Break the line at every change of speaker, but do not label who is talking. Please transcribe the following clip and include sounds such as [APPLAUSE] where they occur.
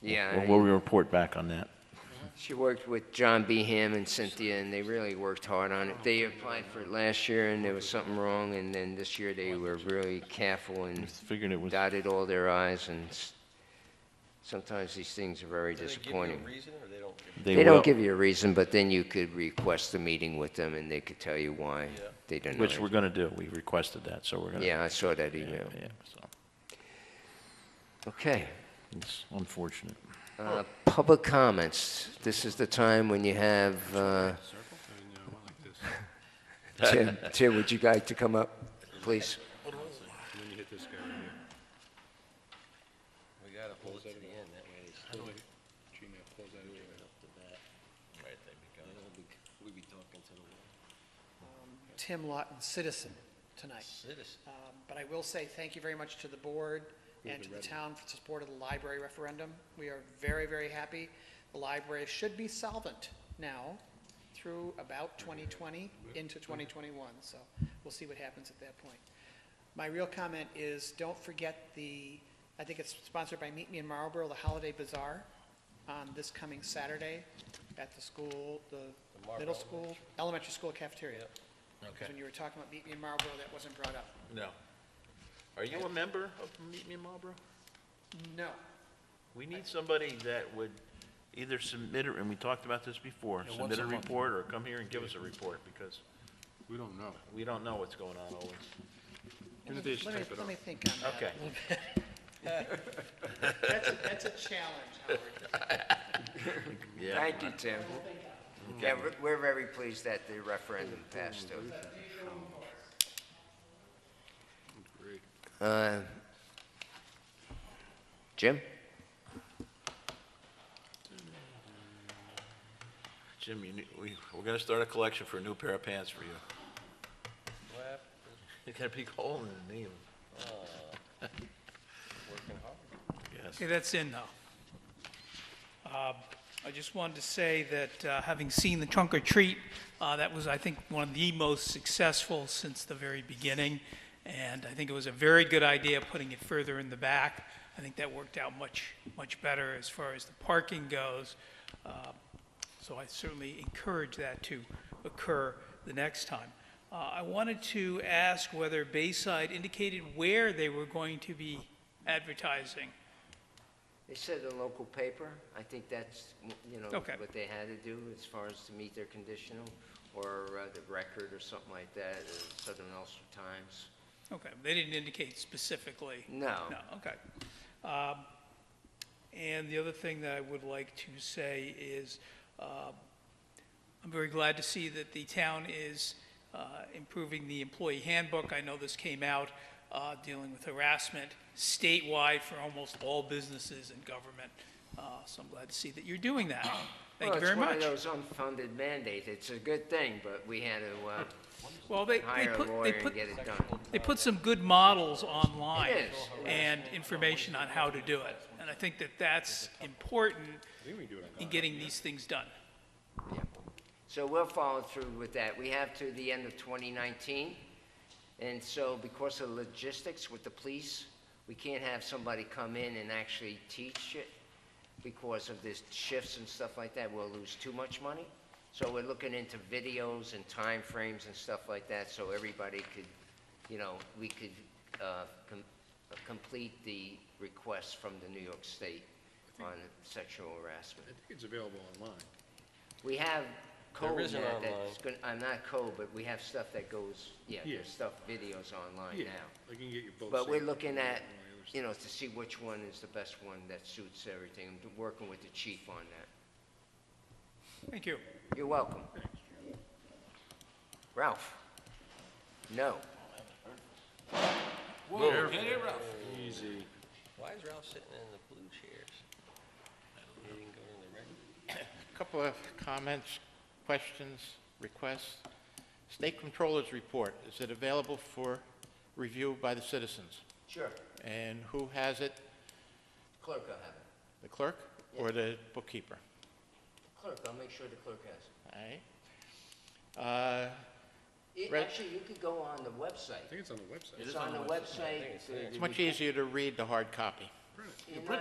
Yeah,
We'll- We'll report back on that.
she worked with John B. Hamm and Cynthia, and they really worked hard on it. They applied for it last year, and there was something wrong, and then this year they were really careful and
Just figured it was,
dotted all their i's, and s- sometimes these things are very
Do they give you a
disappointing.
reason, or they don't give you-
they
They don't
will,
give you a reason, but then you could request a meeting with them, and they could tell you why
Yeah.
they didn't.
which we're going to do. We requested that, so we're going to.
Yeah, I saw that email.
Yeah, so
Okay.
it's unfortunate.
Uh, Public comments. This is the time when you have, uh, [LAUGHS] Tim, Tim, would you like to come up, please?
We gotta hold it to the end, that way it's. Right, they'd be gone. We'd be talking to the
Tim Lawton, citizen, tonight.
citizen.
Um, But I will say thank you very much to the board and to the town for the support of the library referendum. We are very, very happy. The library should be solvent now through about 2020 into 2021, so we'll see what happens at that point. My real comment is, don't forget the, I think it's sponsored by Meet Me in Marlboro, the Holiday Bazaar, on this coming Saturday at the school, the middle school, elementary school cafeteria. Because when you were talking about Meet Me in Marlboro, that wasn't brought up.
No.
Are you a member of Meet Me in Marlboro?
No.
We need somebody that would either submit, a- and we talked about this before, submit a report or come here and give us a report, because
We don't know.
we don't know what's going on always.
Even if they just
Let me,
type it
let
up.
me think on that.
Okay.
a little bit. That's a, that's a challenge, Howard.
Yeah.
Thank you, Tim. Yeah, we're- we're very pleased that the referendum passed, too. Uh, Jim?
Jim, you, need- we, we're gonna start a collection for a new pair of pants for you.
What happened? Uh,
You got a big hole in the knee.
Working hard.
Yes.
Okay, that's in now. Um, I just wanted to say that, uh, having seen the trunk or treat, uh, that was, I think, one of the most successful since the very beginning. And I think it was a very good idea putting it further in the back. I think that worked out much, much better as far as the parking goes. Uh, so I certainly encourage that to occur the next time. Uh, I wanted to ask whether Bayside indicated where they were going to be advertising.
They said the local paper. I think that's, you know,
Okay.
what they had to do as far as to meet their conditional, or uh, the record or something like that, or Southern Ulster Times.
Okay, they didn't indicate specifically?
No.
No, okay. Um, And the other thing that I would like to say is, um, I'm very glad to see that the town is uh, improving the employee handbook. I know this came out, uh, dealing with harassment statewide for almost all businesses and government. Uh, So I'm glad to see that you're doing that. Thank you very much.
Well, it's one of those unfunded mandates. It's a good thing, but we had to
Well, they,
uh,
they
hire
put,
a
they
lawyer and
put
get it done.
They put some good models online
It is, it is.
and information on how to do it. And I think that that's important in getting these things done.
Yeah. So we'll follow through with that. We have to the end of 2019, and so because of logistics with the police, we can't have somebody come in and actually teach it because of this shifts and stuff like that. We'll lose too much money. So we're looking into videos and time frames and stuff like that, so everybody could, you know, we could uh, com- uh, complete the request from the New York State on sexual harassment.
I think it's available online.
We have
There
code
is an
now
online.
that's going, I'm not code, but we have stuff that goes, yeah, there's
Yeah. Oh,
stuff, videos online now.
I can get you both.
But we're
saved.
looking at,
All the other stuff.
you know, to see which one is the best one that suits everything. I'm working with the chief on that.
Thank you.
You're welcome. Ralph? No.
Easy.
Why is Ralph sitting in the blue chairs? He didn't go to the red.
Couple of comments, questions, requests. State Controller's Report, is it available for review by the citizens?
Sure.
And who has it?
Clerk will have it.
The clerk or the bookkeeper?
Clerk, I'll make sure the clerk has it.
All right. Uh,
it.
Right.
Actually, you could go on the
I
website.
think it's on the website.
It's on the website.
It's much easier to read the hard copy.
You're not-